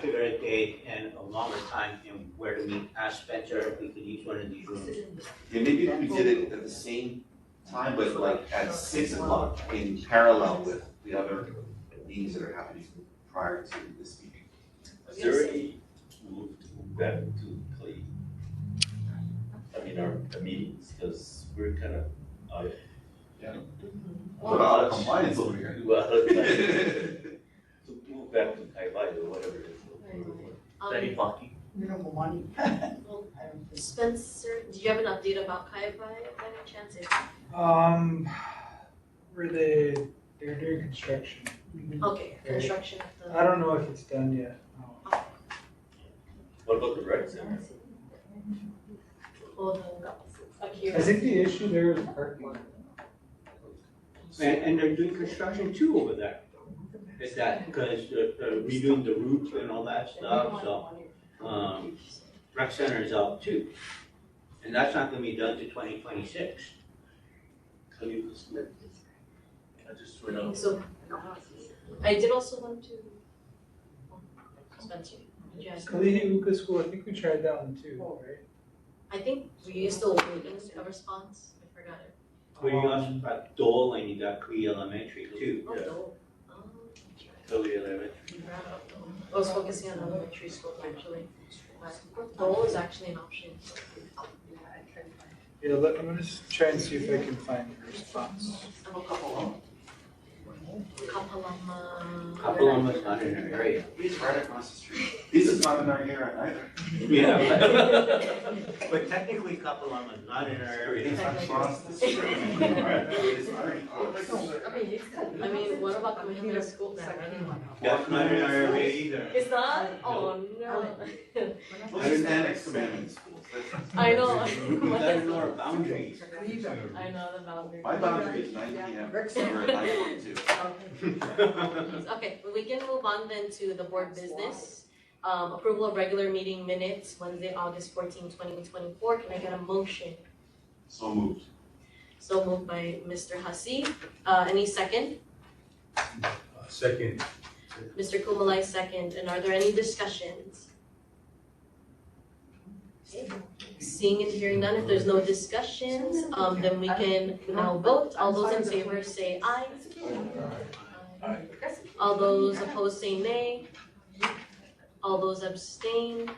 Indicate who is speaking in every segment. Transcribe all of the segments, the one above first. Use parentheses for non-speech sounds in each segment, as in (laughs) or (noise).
Speaker 1: figure a date and a longer time and where to meet, ask Spencer if we could use one of these rooms.
Speaker 2: Yeah, maybe if we did it at the same time, but like at six o'clock in parallel with the other meetings that are happening prior to this meeting.
Speaker 3: Is there any move to move that to play? I mean, our the meetings, because we're uh, kind of out of.
Speaker 2: What a lot of compliance over (laughs) here.
Speaker 3: well, like,
Speaker 2: It
Speaker 3: To move back to Taiwan or whatever it is.
Speaker 4: Um,
Speaker 5: funky.
Speaker 6: minimal money.
Speaker 4: Spencer, do you have an update about Kai by any chance? If-
Speaker 7: Um, where they, they're doing construction.
Speaker 4: Okay, construction of
Speaker 7: I don't know if it's done yet.
Speaker 3: What about the rec center?
Speaker 4: the, all the,
Speaker 7: I
Speaker 4: Akira.
Speaker 7: think the issue there is parking.
Speaker 1: And, and they're doing construction too over there. Is that, because they're they're redoing the roof and all that stuff, so, um, rec center is out too. And that's not gonna be done to twenty twenty-six.
Speaker 3: Can you just let-
Speaker 5: I just went out.
Speaker 4: So, I did also want to, Spencer, did you ask?
Speaker 7: Kalihi School, I think we tried that one
Speaker 4: Oh.
Speaker 7: too, right?
Speaker 4: I think we're still waiting a response, I forgot it.
Speaker 1: Well, you also got Dole and you got Cree Elementary too.
Speaker 4: Oh,
Speaker 3: Yeah.
Speaker 4: no. Um,
Speaker 3: Totally eleven.
Speaker 4: I was focusing on elementary school actually, but Dole is actually an option.
Speaker 7: Yeah, let, I'm gonna s- try and see if I can find the response.
Speaker 4: I'm a couple. Kapalama.
Speaker 1: Kapalama's not in our area.
Speaker 2: is right across the street. This is not in our area either.
Speaker 4: (laughs)
Speaker 1: but- But technically Kapalama's not in our area.
Speaker 2: It's across the (laughs) street. Right, it is already close.
Speaker 4: I mean, what about coming to school now?
Speaker 1: That's not in our area (laughs) either.
Speaker 4: It's not, oh no.
Speaker 2: Well, there's annex commandment schools. That's-
Speaker 4: I know.
Speaker 1: We've got to know our
Speaker 4: (laughs)
Speaker 1: boundaries.
Speaker 4: I know the boundary.
Speaker 2: My boundary is nine P M, or nine point two.
Speaker 3: (laughs)
Speaker 4: Okay, well, we can move on then to the board business. Um, approval of regular meeting minutes, Wednesday, August 14, 2024. can I get a motion?
Speaker 2: So moved.
Speaker 4: So moved by Mr. Hussey, uh, any second?
Speaker 5: Second.
Speaker 4: Mr. Kumalai second, and are there any discussions? Seeing and hearing none, if there's no discussions, um, then we can now vote, all those in favor say aye. All those opposed say nay. All those abstain. Do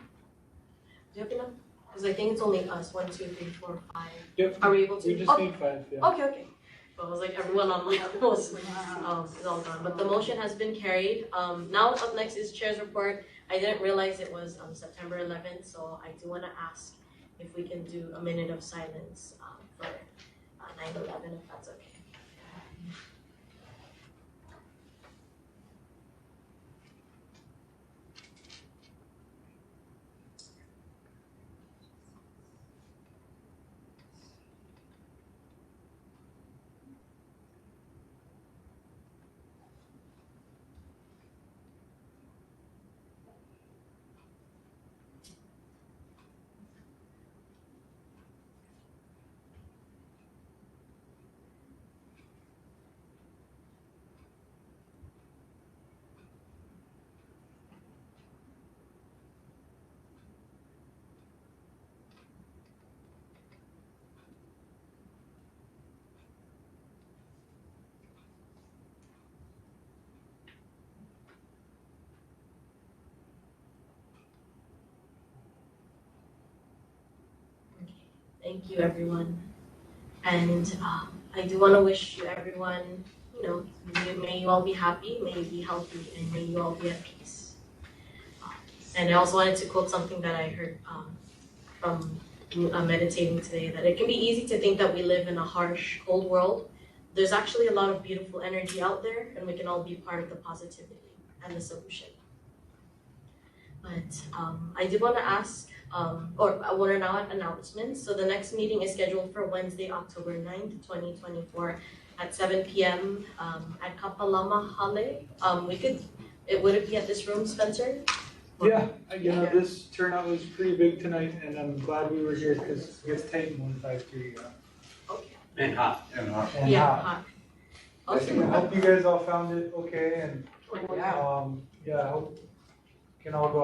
Speaker 4: you have enough? Cause I think it's only us, one, two, three, four, five.
Speaker 7: (laughs) Yep,
Speaker 4: Are we able to? Oh,
Speaker 7: we just need five, yeah.
Speaker 4: Okay, okay. Well, it was like everyone on my (laughs) post um, is all gone, but the motion has been carried. Um, now up next is chair's report. I didn't realize it was um September eleventh, so I do wanna ask if we can do a minute of silence um for uh, nine eleven, if that's okay. Thank you, everyone. And um, I do want to wish you everyone, you know, may- may you all be happy, may you be healthy, and may you all be at peace. Um, And I also wanted to quote something that I heard um, from uh, meditating today that it can be easy to think that we live in a harsh, cold world. There's actually a lot of beautiful energy out there, and we can all be part of the positivity and the solution. But um, I did want to ask um, or what are now announcements. So the next meeting is scheduled for Wednesday, October 9th, twenty twenty-four at seven P M, um, at Kapalama Hale. Um, we could, it, would it be at this room, Spencer?
Speaker 7: Yeah, you know, this turnout was pretty big tonight and I'm glad we were here because with Titan one five three, yeah.
Speaker 4: Okay,
Speaker 1: And hot.
Speaker 2: And, uh,
Speaker 7: And,
Speaker 4: yeah,
Speaker 7: uh,
Speaker 4: hot.
Speaker 2: I
Speaker 7: I
Speaker 2: think-
Speaker 4: Okay,
Speaker 7: hope you guys all found it okay and,
Speaker 6: Yeah.
Speaker 7: um, yeah, I hope can all go